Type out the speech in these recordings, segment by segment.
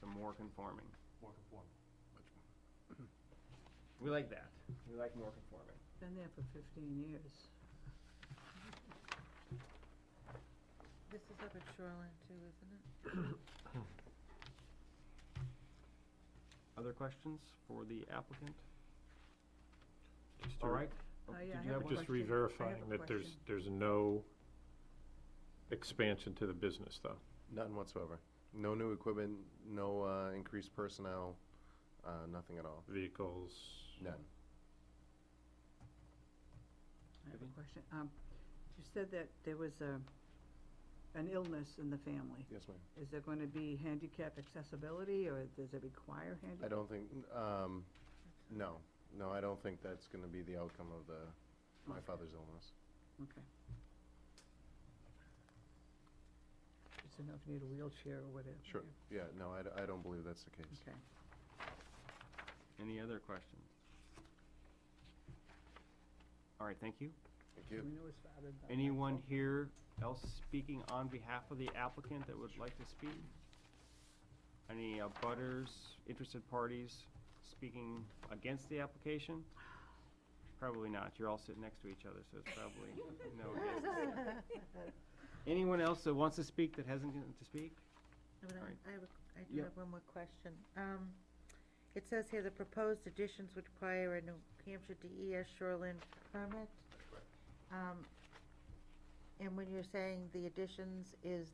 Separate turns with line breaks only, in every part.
more conforming.
more conforming.
We like that. We like more conforming.
Been there for fifteen years.
This is up at Shoreline too, isn't it?
Other questions for the applicant?
Just to-
All right?
Oh,
Oh,
yeah, I
Did you
have
have
a
one?
Just
question. I have a
re-verifying that there's,
question.
there's no expansion to the business, though.
None whatsoever. No new equipment, no uh, increased personnel, uh, nothing at all.
Vehicles.
None.
I have
Vivian?
a question. Um, you said that there was a, an illness in the family.
Yes, ma'am.
Is there gonna be handicap accessibility, or does it require handicap?
I don't think, um, no, no, I don't think that's gonna be the outcome of the, my
Okay.
father's illness.
Okay. Just enough need a wheelchair or whatever.
Sure, yeah, no, I, d- I don't believe that's the case.
Okay.
Any other questions? All right, thank you.
Thank
We
you.
know his father died.
Anyone here else speaking on behalf of the applicant that would like to speak? Any uh, butters, interested parties speaking against the application? Probably not. You're all sitting next to each other, so it's probably no against. Anyone else that wants to speak that hasn't gotten to speak?
But
Alright.
I- I have, a- I do
Yep.
have one more question. Um, It says here the proposed additions would require a New Hampshire DES shoreline permit. Um, And when you're saying the additions, is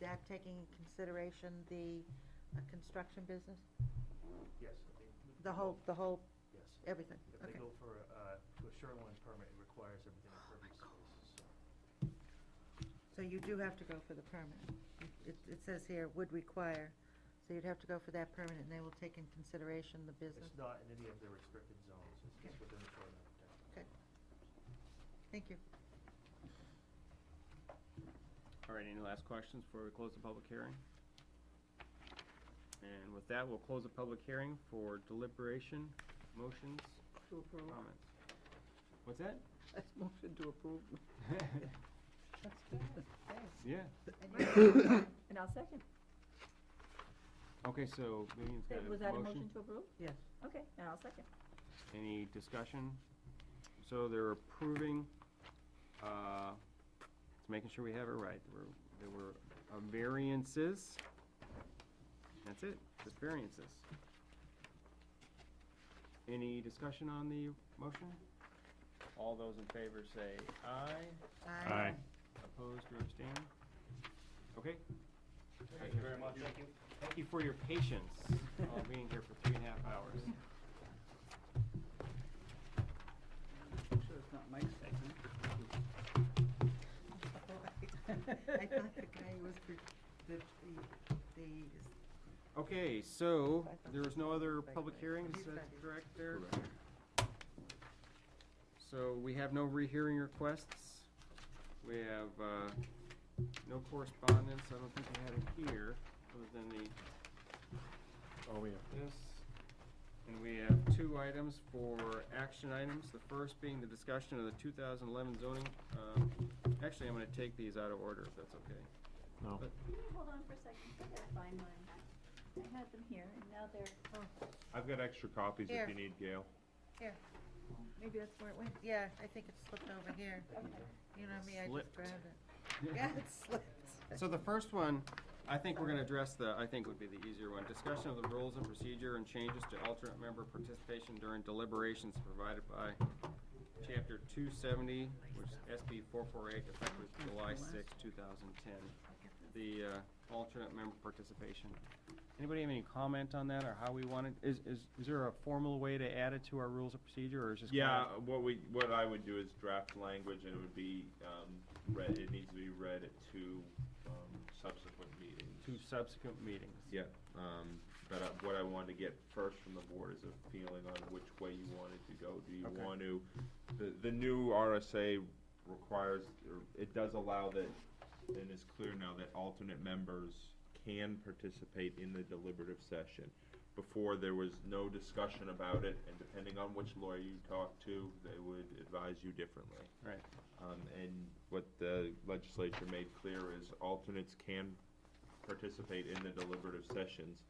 that taking into consideration the uh, construction business?
Yes. if they- if
The
they
whole,
go-
the whole,
Yes.
everything?
If they
Okay. Oh,
go for, uh, to a shoreline permit, it requires everything in pervious space, so.
So you do have to go for the permit. It, it says here, would require, so you'd have to go for that permit, and they will take in consideration the business.
It's not in any of the restricted zones, it's just within the shoreline protection.
Thank you.
All right, any last questions before we close the public hearing? And with that, we'll close the public hearing for deliberation, motions,
To approve.
comments. What's that?
That's motion to approve.
That's good,
Yeah.
thanks. And I'll second.
Okay, so Vivian's got a motion.
Was that a motion to approve?
Yes.
Okay, and I'll second.
Any discussion? So they're approving, uh, it's making sure we have it right. There were, there were uh, variances. That's it, just variances. Any discussion on the motion? All those in favor say aye,
Aye.
opposed or abstained? Okay. Thank you very much. Thank you for your patience, all being here for three and a half hours.
I'm sure it's not Mike's second.
I thought the guy who was the, the, the- the,
Okay, so there was no other public hearings, is that correct there? So we have no rehearing requests. We have, uh, no correspondence. I don't think we had it here, other than the,
Oh, yeah.
this. And we have two items for action items. The first being the discussion of the two thousand eleven zoning. Um, actually, I'm gonna take these out of order, if that's okay.
No.
Can you hold on for a second? I gotta find mine. I had them here and now they're,
oh,
I've got extra copies
Here.
if you need, Gail.
maybe that's where it went, yeah, I think it slipped over here. You know me, I just
Slipped.
grabbed it. Yeah, it slipped.
So the first one, I think we're gonna address the, I think would be the easier one, discussion of the rules and procedure and changes to alternate member participation during deliberations provided by chapter two seventy, which is SB four four eight, effective July sixth, two thousand ten. The, uh, alternate member participation. Anybody have any comment on that or how we want it? Is, is, is there a formal way to add it to our rules of procedure or is this? kinda-
Yeah, what we, what I would do is draft language and it would be, um, read, it needs to be read at two, um, subsequent meetings.
To subsequent meetings.
Yeah, um, but I- what I wanted to get first from the board is a feeling on which way you wanted to go. Do you
Okay.
want to, the, the new RSA requires, or it does allow that, and it's clear now that alternate members can participate in the deliberative session. Before, there was no discussion about it, and depending on which lawyer you talked to, they would advise you differently.
Right.
Um, and what the legislature made clear is alternates can participate in the deliberative sessions.